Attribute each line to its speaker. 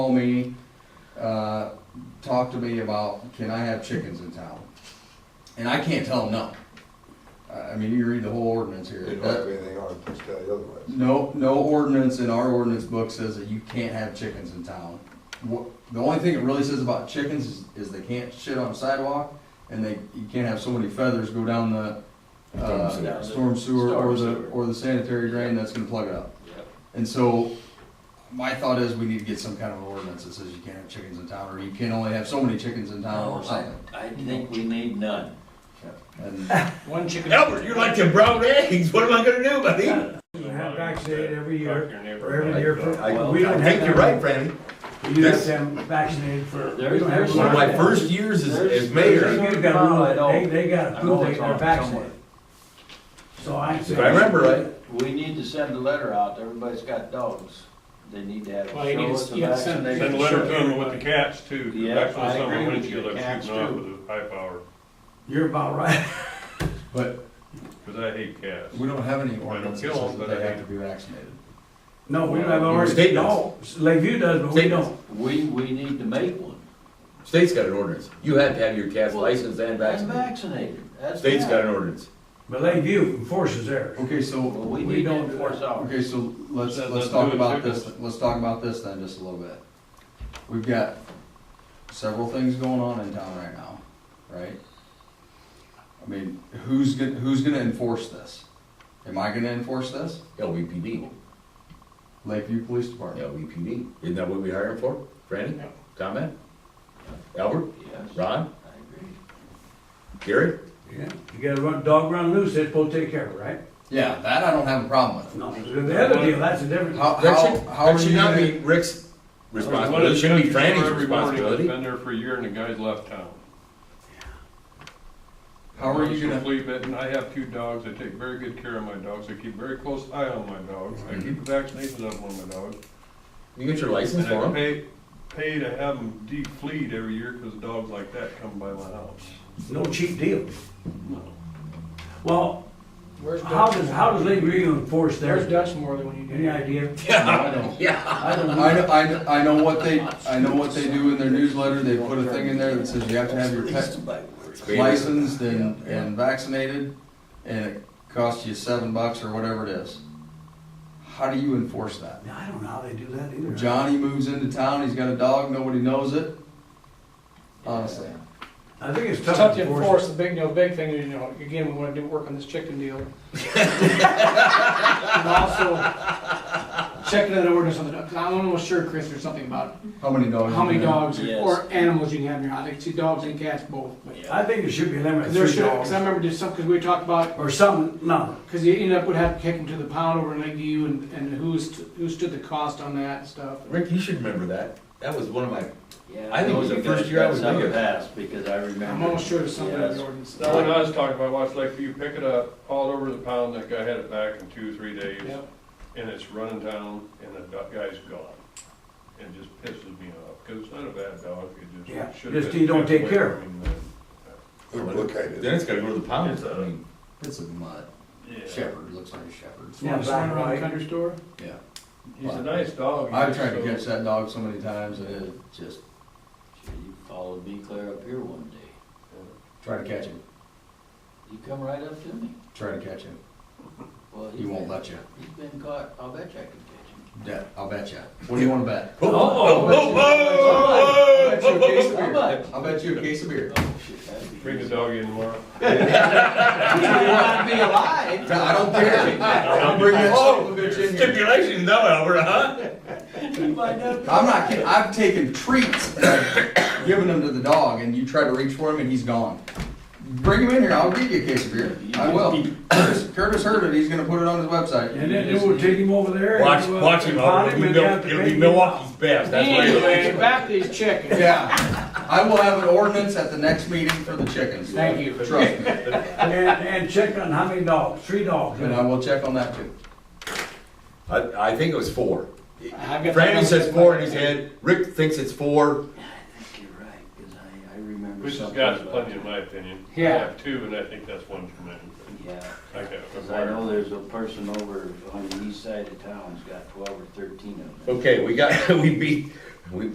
Speaker 1: called me, uh, talked to me about, can I have chickens in town? And I can't tell them no. I I mean, you read the whole ordinance here.
Speaker 2: They don't
Speaker 1: That-
Speaker 2: have anything on it, just tell you otherwise.
Speaker 1: No, no ordinance in our ordinance book says that you can't have chickens in town. What, the only thing it really says about chickens is, is they can't shit on a sidewalk, and they, you can't have so many feathers go down the,
Speaker 3: Storm
Speaker 1: uh,
Speaker 3: sewer.
Speaker 1: storm sewer or
Speaker 3: Storm
Speaker 1: the,
Speaker 3: sewer.
Speaker 1: or the sanitary drain that's gonna plug it up.
Speaker 3: Yep.
Speaker 1: And so, my thought is we need to get some kind of an ordinance that says you can't have chickens in town, or you can only have so many chickens in town, or
Speaker 3: I,
Speaker 1: something.
Speaker 3: I think we need none.
Speaker 1: And
Speaker 3: One chicken.
Speaker 4: Albert, you're like them brown eggs. What am I gonna do, buddy?
Speaker 5: You have vaccinated every year, or
Speaker 4: I
Speaker 5: every year for,
Speaker 2: I-
Speaker 5: we don't have
Speaker 4: think you're right,
Speaker 5: them,
Speaker 4: Franny.
Speaker 5: you have them vaccinated for. we don't have
Speaker 4: One of my
Speaker 5: them.
Speaker 4: first years as, as mayor,
Speaker 5: They've got to
Speaker 3: I
Speaker 5: rule
Speaker 3: know.
Speaker 5: it, they, they got to
Speaker 3: I know
Speaker 5: prove
Speaker 3: it's
Speaker 5: they are
Speaker 3: on
Speaker 5: vaccinated. So I.
Speaker 4: if I remember right,
Speaker 3: We need to send a letter out, everybody's got dogs, they need to have.
Speaker 6: Well, you need to-
Speaker 3: show us the
Speaker 6: you have to send-
Speaker 3: vaccination.
Speaker 7: Send a letter to them with the cats too, 'cause
Speaker 3: Yeah,
Speaker 7: that's what
Speaker 3: I
Speaker 7: some of
Speaker 3: agree
Speaker 7: the
Speaker 3: with
Speaker 7: windshield
Speaker 3: you,
Speaker 7: I'm
Speaker 3: cats
Speaker 7: shooting off
Speaker 3: too.
Speaker 7: with a high power,
Speaker 5: You're about right.
Speaker 7: because I hate cats.
Speaker 1: we don't have any ordinance that
Speaker 7: kill
Speaker 1: says
Speaker 7: 'em,
Speaker 1: that
Speaker 7: but
Speaker 1: they
Speaker 7: I
Speaker 1: have to
Speaker 7: hate-
Speaker 1: be vaccinated.
Speaker 5: No, we don't have ours.
Speaker 4: State
Speaker 5: No, Lakeview does, but we
Speaker 4: State
Speaker 5: don't.
Speaker 3: We, we need to make one.
Speaker 4: state's got an ordinance. You have to have your cats licensed and
Speaker 3: And
Speaker 4: vaccinated.
Speaker 3: vaccinated, that's.
Speaker 4: State's got
Speaker 3: bad.
Speaker 4: an ordinance.
Speaker 5: But Lakeview enforces theirs.
Speaker 1: Okay, so.
Speaker 3: Well, we
Speaker 5: we
Speaker 3: need to
Speaker 5: don't-
Speaker 3: enforce ours.
Speaker 1: Okay, so let's,
Speaker 7: Let's-
Speaker 1: let's
Speaker 7: let's
Speaker 1: talk
Speaker 7: do it
Speaker 1: about
Speaker 7: quickly.
Speaker 1: this, let's talk about this then just a little bit. We've got several things going on in town right now, right? I mean, who's gonna, who's gonna enforce this? Am I gonna enforce this?
Speaker 4: LVPD,
Speaker 1: Lakeview Police Department?
Speaker 4: LVPD. Isn't that what we hired him for? Franny, comment? Albert,
Speaker 3: Yes,
Speaker 4: Ron,
Speaker 3: I agree.
Speaker 4: Gary?
Speaker 5: Yeah. You gotta run, dog run loose, they're supposed to take care of it, right?
Speaker 1: Yeah, that I don't have a problem with.
Speaker 5: No, the other deal, that's a different.
Speaker 1: How,
Speaker 4: That
Speaker 1: how,
Speaker 4: should,
Speaker 1: how
Speaker 4: that
Speaker 1: are
Speaker 4: should
Speaker 1: you
Speaker 4: not be
Speaker 1: gonna?
Speaker 4: Rick's
Speaker 7: One of
Speaker 4: responsibility.
Speaker 7: the
Speaker 4: It shouldn't be
Speaker 7: judges for
Speaker 4: Franny's
Speaker 7: every morning that's
Speaker 4: responsibility.
Speaker 7: Been there for a year and the guy's left town.
Speaker 1: How are you gonna,
Speaker 7: Flea bitten. I have two dogs. I take very good care of my dogs. I keep very close eye on my dogs. I
Speaker 4: Mm-hmm.
Speaker 7: keep the vaccinations on one of my dogs.
Speaker 4: You get your license
Speaker 7: And
Speaker 4: for
Speaker 7: I
Speaker 4: him?
Speaker 7: pay, pay to have them de-fleed every year because dogs like that come by my house.
Speaker 5: No cheap deal. Well, how does, how does Lakeview enforce
Speaker 6: There's
Speaker 5: theirs?
Speaker 6: Dutch more than when you do.
Speaker 5: Any idea?
Speaker 1: I don't,
Speaker 4: Yeah.
Speaker 5: I don't know.
Speaker 1: I, know- I, know- I know what they, I know what they do in their newsletter, they put a thing in there that says you have to have your pet licensed and, and vaccinated, and it costs you seven bucks or whatever it is. How do you enforce that?
Speaker 5: I don't know how they do that either.
Speaker 1: Johnny moves into town, he's got a dog, nobody knows it. Honestly,
Speaker 5: I think it's
Speaker 6: It's
Speaker 5: tough to enforce.
Speaker 6: enforce, the big, you know, big thing, is, you know, again, we wanna do work on this chicken deal. And also, checking that ordinance on the, I'm almost sure, Chris, there's something about
Speaker 1: how many dogs?
Speaker 6: how many
Speaker 1: Oh, you have?
Speaker 6: dogs
Speaker 3: Yes.
Speaker 6: or animals you can have in your house, I think two dogs and cats both. but-
Speaker 5: I think it should be limited
Speaker 6: Cause
Speaker 5: to
Speaker 6: there
Speaker 5: three
Speaker 6: should, cause I
Speaker 5: dogs
Speaker 6: remember there's some, cause we talked about,
Speaker 5: or something, no.
Speaker 6: cause you end up would have to kick them to the pound over in Lakeview and, and who's, who stood the cost on that and stuff.
Speaker 4: Rick, you should remember that. That was one of my
Speaker 3: Yeah,
Speaker 4: I think it was
Speaker 3: know
Speaker 4: the
Speaker 3: you guys
Speaker 4: first year I
Speaker 3: got
Speaker 4: was
Speaker 3: some
Speaker 4: mayor.
Speaker 3: passed, Because I remember.
Speaker 6: I'm almost sure there's something in
Speaker 3: Yes.
Speaker 6: the ordinance.
Speaker 7: That one I was talking about, watch Lakeview, pick it up, all over the pound, that guy had it back in two, three days.
Speaker 6: Yep.
Speaker 7: And it's running down and the do- guy's gone. And just pisses me off, cause it's not a bad dog, it
Speaker 5: Yeah,
Speaker 7: just should
Speaker 5: just you don't take care of
Speaker 2: Who look at
Speaker 4: Then
Speaker 2: it?
Speaker 4: it's gotta go to the pound. I mean,
Speaker 1: It's a mutt,
Speaker 7: Yeah,
Speaker 1: shepherd, looks like a shepherd,
Speaker 5: Yeah,
Speaker 6: Just
Speaker 5: black
Speaker 6: run
Speaker 5: and
Speaker 6: around the
Speaker 5: white.
Speaker 6: country store?
Speaker 1: yeah.
Speaker 7: he's a nice dog. he's
Speaker 1: I've tried to
Speaker 7: so-
Speaker 1: catch that dog so many times, and it just,
Speaker 3: Sure, You followed me clear up here one day,
Speaker 1: try to catch him,
Speaker 3: you come right up to me.
Speaker 1: try to catch him,
Speaker 3: Well,
Speaker 1: he won't let you,
Speaker 3: He's been caught, I'll bet you I can catch him.
Speaker 1: Yeah, I'll bet you, what do you wanna bet?
Speaker 4: Oh,
Speaker 3: whoa,
Speaker 1: I'll bet you a case of beer,
Speaker 3: Somebody.
Speaker 1: I'll bet you a case of beer.
Speaker 3: Oh, shit, that'd be.
Speaker 7: Bring the
Speaker 3: easy.
Speaker 7: dog in tomorrow.
Speaker 3: Yeah, You'd be alive.
Speaker 1: I don't care. I'll bring that son of a bitch in here.
Speaker 4: Stipulations, no, Albert, huh?
Speaker 3: You might not be.
Speaker 1: I'm not kidding. I've taken treats and I've given them to the dog, and you try to reach for him, and he's gone. Bring him in here. I'll give you a case of beer. I will. Curtis, Curtis heard it. He's going to put it on his website.
Speaker 5: And then it will take him over there. and
Speaker 4: Watch,
Speaker 5: we'll
Speaker 4: watch him,
Speaker 5: pound
Speaker 4: Albert. It'll be
Speaker 5: and they
Speaker 4: Mil-
Speaker 5: have to
Speaker 4: it'll
Speaker 5: pay
Speaker 4: be
Speaker 5: him.
Speaker 4: Milwaukee's best, that's what
Speaker 6: Anyway,
Speaker 4: it is.
Speaker 6: back to these chickens.
Speaker 1: Yeah, I will have an ordinance at the next meeting for the chickens.
Speaker 6: Thank you.
Speaker 1: Trust me,
Speaker 5: And, and check on how many dogs, three dogs.
Speaker 1: and I will check on that too.
Speaker 4: I, I think it was four.
Speaker 6: I've got-
Speaker 4: Franny says four in his head, Rick thinks it's four.
Speaker 3: I think you're right, because I, I remember
Speaker 7: Which has
Speaker 3: something.
Speaker 7: got
Speaker 3: about
Speaker 7: plenty
Speaker 3: it.
Speaker 7: in my opinion. I
Speaker 6: Yeah.
Speaker 7: have two and I think that's one too many.
Speaker 3: Yeah,
Speaker 7: I can't
Speaker 3: because I know
Speaker 7: remember.
Speaker 3: there's a person over on the east side of town's got twelve or thirteen of them.
Speaker 4: Okay, we got, we beat,